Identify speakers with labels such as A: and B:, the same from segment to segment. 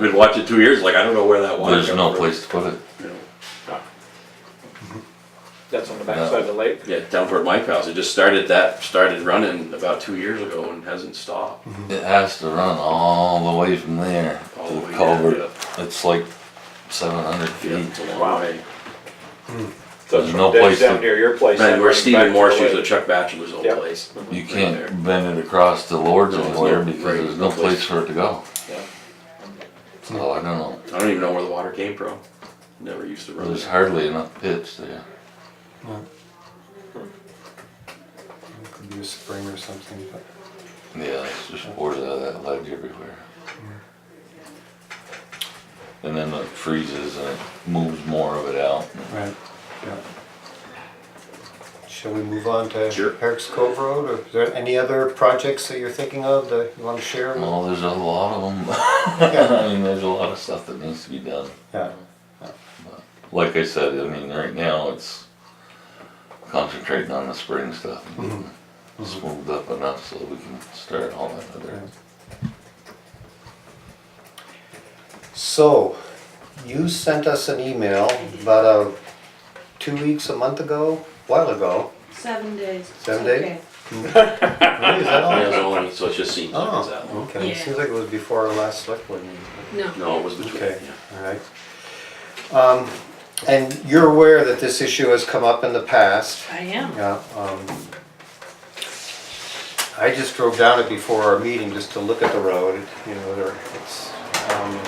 A: no,
B: been watching two years, like, I don't know where that water.
A: there's
B: comes
A: no
B: from.
A: place to put it.
C: That's on the backside of the lake.
B: Yeah, down toward Mike House, it just started, that started running about two years ago and hasn't stopped.
A: It has to run all the way from there
B: All
A: to
B: the
A: the
B: way down,
A: culvert.
B: yeah.
A: It's like seven hundred
B: Yeah,
A: feet.
B: it's a long
C: Wow.
B: way.
C: So
A: There's
C: it's
A: no
C: from Denny's
A: place to-
C: down near your place.
B: Man,
C: and
B: where
C: running back
B: Stephen
C: to
B: Morse
C: the
B: used to
C: lake.
B: Chuck Bachelor's old
C: Yeah.
B: place.
A: You
B: Right there.
A: can't bend it across the Lord's
B: No, there's no-
A: anywhere because
B: right,
A: there's no place for it to go.
C: Yeah.
A: So I don't know,
B: I don't even know where the water came from. Never used to run
A: there's
B: it.
A: hardly enough pits there.
D: It Could be a spring or something, but
A: Yeah, it's just poured out of that ledge everywhere. And then it freezes and it moves more of it out.
D: right, yeah. Shall we move on to
B: Sure.
D: Eric's Cove Road, or is there any other projects that you're thinking of that you want to share?
A: Well, there's a lot of them.
D: Yeah.
A: I mean, there's a lot of stuff that needs to be done.
D: Yeah,
A: Like I said, I mean, right now it's concentrating on the spring stuff. and getting Smoothed up enough so we can start all that other.
D: so, you sent us an email about, uh, two weeks, a month ago, while ago.
E: Seven days. It's
D: Seven days?
E: okay.
D: Really, is that all?
B: Yeah, it was only- So it just seems like it's that
D: Oh,
B: long.
D: okay,
E: Yeah.
D: seems like it was before our last select board meeting.
E: No.
B: No, it was between,
D: Okay,
B: yeah.
D: all right. Um, and you're aware that this issue has come up in the past,
E: I am.
D: yeah, um. I just drove down it before our meeting just to look at the road, you know, there, it's, um.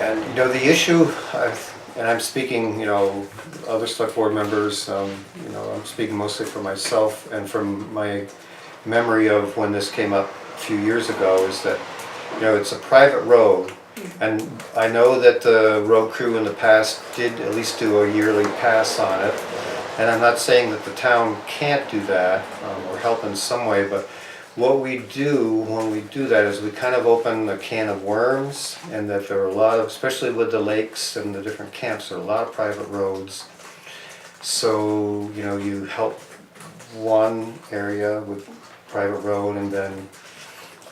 D: And, you know, the issue, I've, and I'm speaking, you know, other select board members, um, you know, I'm speaking mostly for myself and from my memory of when this came up a few years ago is that, you know, it's a private road. And I know that the road crew in the past did at least do a yearly pass on it. And I'm not saying that the town can't do that um, or help in some way, but what we do when we do that is we kind of open a can of worms and that there are a lot of, especially with the lakes and the different camps, there are a lot of private roads. So, you know, you help one area with private road and then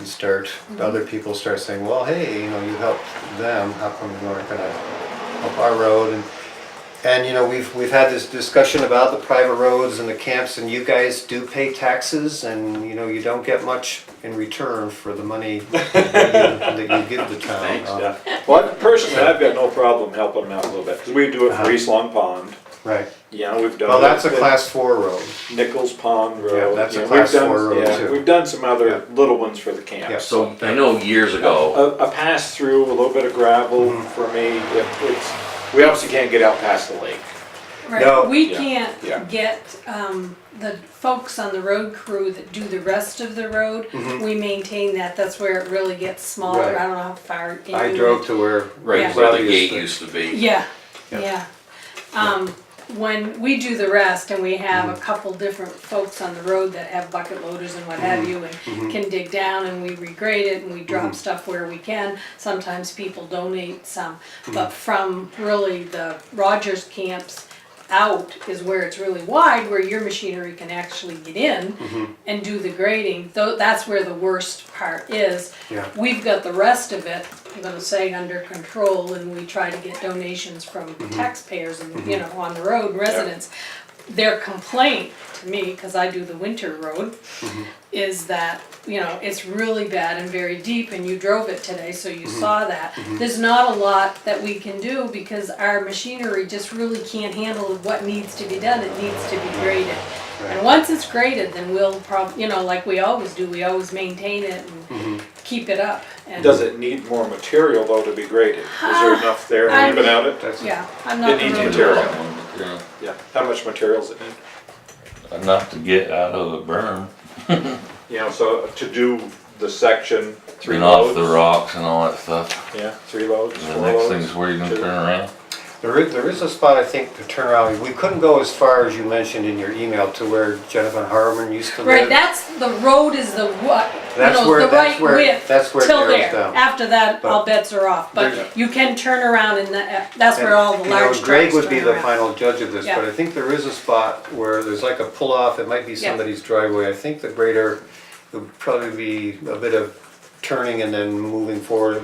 D: you start, other people start saying, well, hey, you know, you helped them, how come you aren't gonna help our road? And and you know, we've, we've had this discussion about the private roads and the camps and you guys do pay taxes and, you know, you don't get much in return for the money that you that you give the town.
B: Thanks,
D: Uh,
C: Yeah. Well, personally, I've got no problem helping them out a little bit, 'cause we do it
D: Uh-huh.
C: for East Long Pond.
D: Right,
C: You know, we've done.
D: well,
C: it
D: that's a
C: at
D: class four road,
C: Nichols Pond Road.
D: Yeah, that's a
C: you know,
D: class
C: we've done-
D: four road,
C: yeah,
D: too.
C: We've done some other
D: Yeah.
C: little ones for the camps.
B: So I know years ago,
C: A, a pass through, a little bit of gravel
D: Mm-hmm.
C: for me, if it's, we obviously can't get out past the lake.
D: No.
E: Right, we
C: Yeah, yeah.
E: can't get, um, the folks on the road crew that do the rest of the road, we maintain that, that's where it really gets smaller,
D: Mm-hmm. Right.
E: I don't know how far.
D: I
E: in.
D: drove to where.
B: right
E: Yeah.
B: where the
D: Rowdy is
B: gate used to be.
E: Yeah,
D: Yeah.
E: yeah. Um, when we do the rest and we have a couple different folks on the road that have bucket loaders and what have you and can dig down and we regrade it and we drop stuff where we can. Sometimes people donate some, but from really the Rogers camps out is where it's really wide, where your machinery can actually get in and do the grading. Though, that's where the worst part is.
D: Yeah.
E: We've got the rest of it, I'm gonna say, under control, and we try to get donations from taxpayers and, you know, on the road residents. Their complaint to me, cause I do the winter road, is that, you know, it's really bad and very deep, and you drove it today, so you saw that. There's not a lot that we can do, because our machinery just really can't handle what needs to be done, it needs to be graded. And once it's graded, then we'll prob, you know, like we always do, we always maintain it
D: Mm-hmm.
E: and keep it up. and-
C: Does it need more material though to be graded? Is there enough there
E: I-
C: even out it?
D: That's it.
E: Yeah, I'm not
C: It needs
E: the road.
C: material.
A: Yeah.
C: Yeah, how much material is it need?
A: Enough to get out of a berm,
C: You know, so to do the section, three
A: and off
C: loads.
A: the rocks and all that stuff.
C: Yeah, three loads,
A: And
C: four
A: the next
C: loads.
A: thing's where you gonna
C: two.
A: turn around.
D: There is, there is a spot, I think, to turn around, we couldn't go as far as you mentioned in your email to where Jennifer Harmon used to live.
E: Right, that's, the road is the what, you
D: That's
E: know,
D: where-
E: the
D: that's
E: right
D: where-
E: width.
D: that's where it
E: till
D: narrows
E: there.
D: down.
E: After that, all
D: But
E: bets are off,
D: there's-
E: but you can turn around and that- that's where all the
D: You know,
E: large trucks turn
D: Greg would be the
E: around.
D: final judge of this, but
E: Yeah.
D: I think there is a spot where there's like a pull-off, it might be
E: Yeah.
D: somebody's driveway, I think the grader, it would probably be a bit of turning and then moving forward